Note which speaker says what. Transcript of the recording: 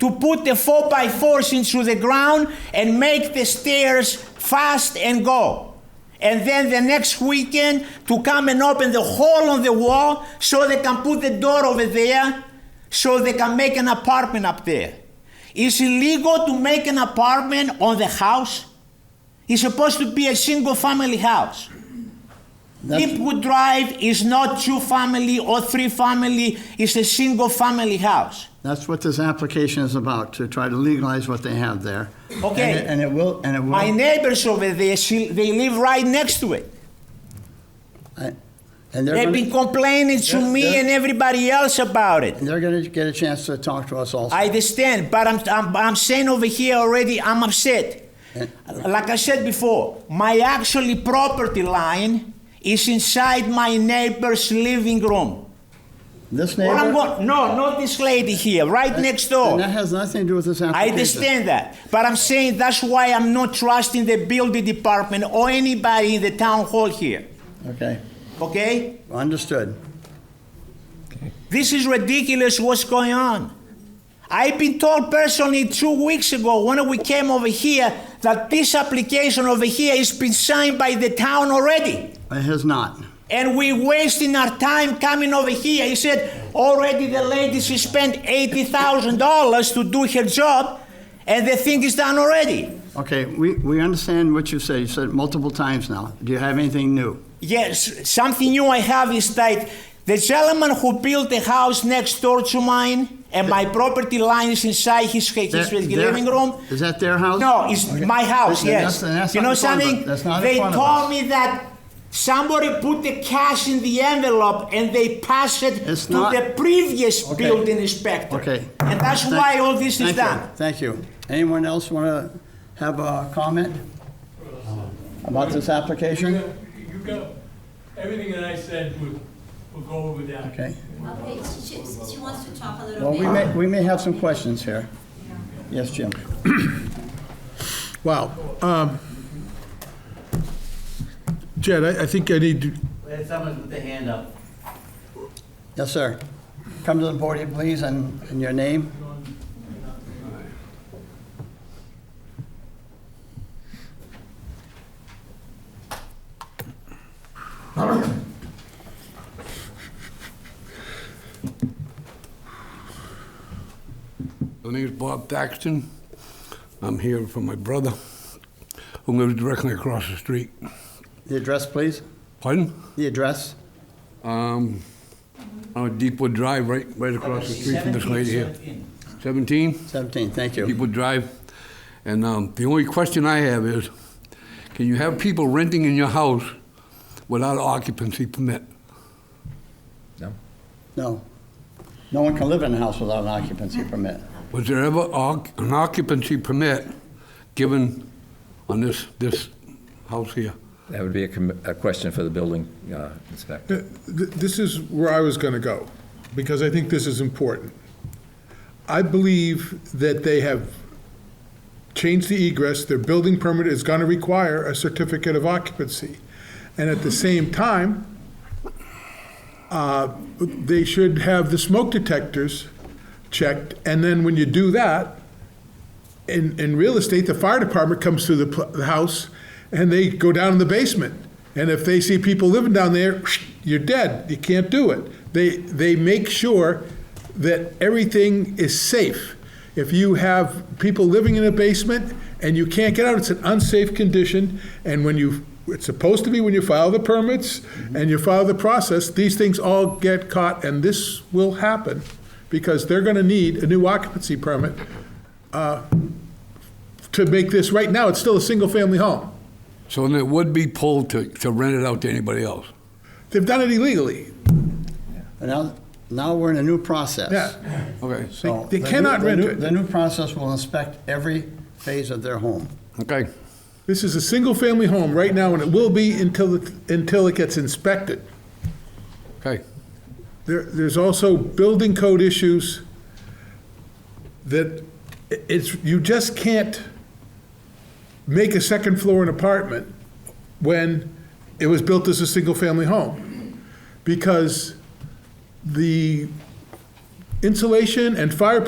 Speaker 1: to put the 4 by 4s into the ground and make the stairs fast and go. And then the next weekend to come and open the hole on the wall so they can put the door over there so they can make an apartment up there. It's illegal to make an apartment on the house. It's supposed to be a single family house. Deepwood Drive is not two family or three family, it's a single family house.
Speaker 2: That's what this application is about, to try to legalize what they have there.
Speaker 1: Okay.
Speaker 2: And it- And it will, and it will.
Speaker 1: My neighbors over there, she, they live right next to it.
Speaker 2: I- And they're
Speaker 1: They've
Speaker 2: gonna,
Speaker 1: been complaining to
Speaker 2: Yeah,
Speaker 1: me
Speaker 2: yeah.
Speaker 1: and everybody else about it.
Speaker 2: they're gonna get a chance to talk to us also.
Speaker 1: I understand, but I'm, I'm, I'm saying over here already, I'm upset.
Speaker 2: And-
Speaker 1: Like I said before, my actually property line is inside my neighbor's living room.
Speaker 2: This
Speaker 1: Well, I'm
Speaker 2: neighbor,
Speaker 1: going, no, not this lady here, right next door.
Speaker 2: and that has nothing to do with this
Speaker 1: I
Speaker 2: application.
Speaker 1: understand that, but I'm saying that's why I'm not trusting the building department or anybody in the town hall here.
Speaker 2: Okay,
Speaker 1: Okay?
Speaker 2: understood.
Speaker 1: This is ridiculous what's going on. I've been told personally two weeks ago when we came over here that this application over here has been signed by the town already.
Speaker 2: It has not.
Speaker 1: And we're wasting our time coming over here. He said already the lady she spent $80,000 to do her job and the thing is done already.
Speaker 2: Okay, we, we understand what you said. You said it multiple times now. Do you have anything new?
Speaker 1: Yes, something new I have is that the gentleman who built the house next door to mine and my property line is inside his, his,
Speaker 2: Their- their-
Speaker 1: living room.
Speaker 2: Is that their house?
Speaker 1: No, it's
Speaker 2: Okay.
Speaker 1: my house,
Speaker 2: Listen,
Speaker 1: yes.
Speaker 2: that's- that's
Speaker 1: you
Speaker 2: not
Speaker 1: know
Speaker 2: in front of-
Speaker 1: something?
Speaker 2: that's not in
Speaker 1: they
Speaker 2: front of
Speaker 1: told
Speaker 2: us.
Speaker 1: me that somebody put the cash in the envelope and they passed it
Speaker 2: It's
Speaker 1: to
Speaker 2: not-
Speaker 1: the previous
Speaker 2: Okay.
Speaker 1: building inspector.
Speaker 2: Okay.
Speaker 1: And that's
Speaker 2: Thank-
Speaker 1: why all this is
Speaker 2: thank you.
Speaker 1: done.
Speaker 2: Thank you. Anyone else want to have a comment about this application?
Speaker 3: You got- You got, everything that I said would, would go over that.
Speaker 2: Okay.
Speaker 4: Okay, she, she- she wants to talk a little
Speaker 2: Well,
Speaker 4: bit.
Speaker 2: we may, we may have some questions here. Yes, Jim?
Speaker 5: Wow. Um, Jed, I I think I need, to-
Speaker 6: We had someone with the hand up.
Speaker 2: Yes, sir. Come to the podium, please, and, and your name.
Speaker 7: My name is Bob Thaxton. I'm here for my brother, who lives directly across the street.
Speaker 2: The address, please.
Speaker 7: Pardon?
Speaker 2: The address.
Speaker 7: Um, on Deepwood Drive, right, right across the street from this lady here. Seventeen?
Speaker 2: 17, thank you.
Speaker 7: Deepwood Drive. And um, the only question I have is, can you have people renting in your house without occupancy permit?
Speaker 2: No. No one can live in a house without an occupancy permit.
Speaker 7: Was there ever oc- an occupancy permit given on this, this house here?
Speaker 8: That would be a com- a question for the building uh, inspector.
Speaker 5: th- th- this is where I was going to go, because I think this is important. I believe that they have changed the egress, their building permit is going to require a certificate of occupancy. And at the same time, uh, they should have the smoke detectors checked, and then when you do that, in, in real estate, the fire department comes through the, pl- the house and they go down in the basement. And if they see people living down there, you're dead. You can't do it. They, they make sure that everything is safe. If you have people living in a basement and you can't get out, it's an unsafe condition. And when you, it's supposed to be when you file the permits and you file the process, these things all get caught. And this will happen because they're going to need a new occupancy permit to make this, right now, it's still a single-family home.
Speaker 7: So then it would be pulled to, to rent it out to anybody else?
Speaker 5: They've done it illegally.
Speaker 2: And now, now we're in a new process.
Speaker 5: Yeah,
Speaker 7: Okay,
Speaker 2: So
Speaker 5: They- they
Speaker 2: the new-
Speaker 5: cannot
Speaker 2: the
Speaker 5: rent
Speaker 2: new-
Speaker 5: it.
Speaker 2: The new process will inspect every phase of their home.
Speaker 7: okay.
Speaker 5: this is a single-family home right now, and it will be until, it- until it gets inspected.
Speaker 7: Okay.
Speaker 5: There, there's also building code issues that i- it's, you just can't make a second floor an apartment when it was built as a single-family home. Because the insulation and fire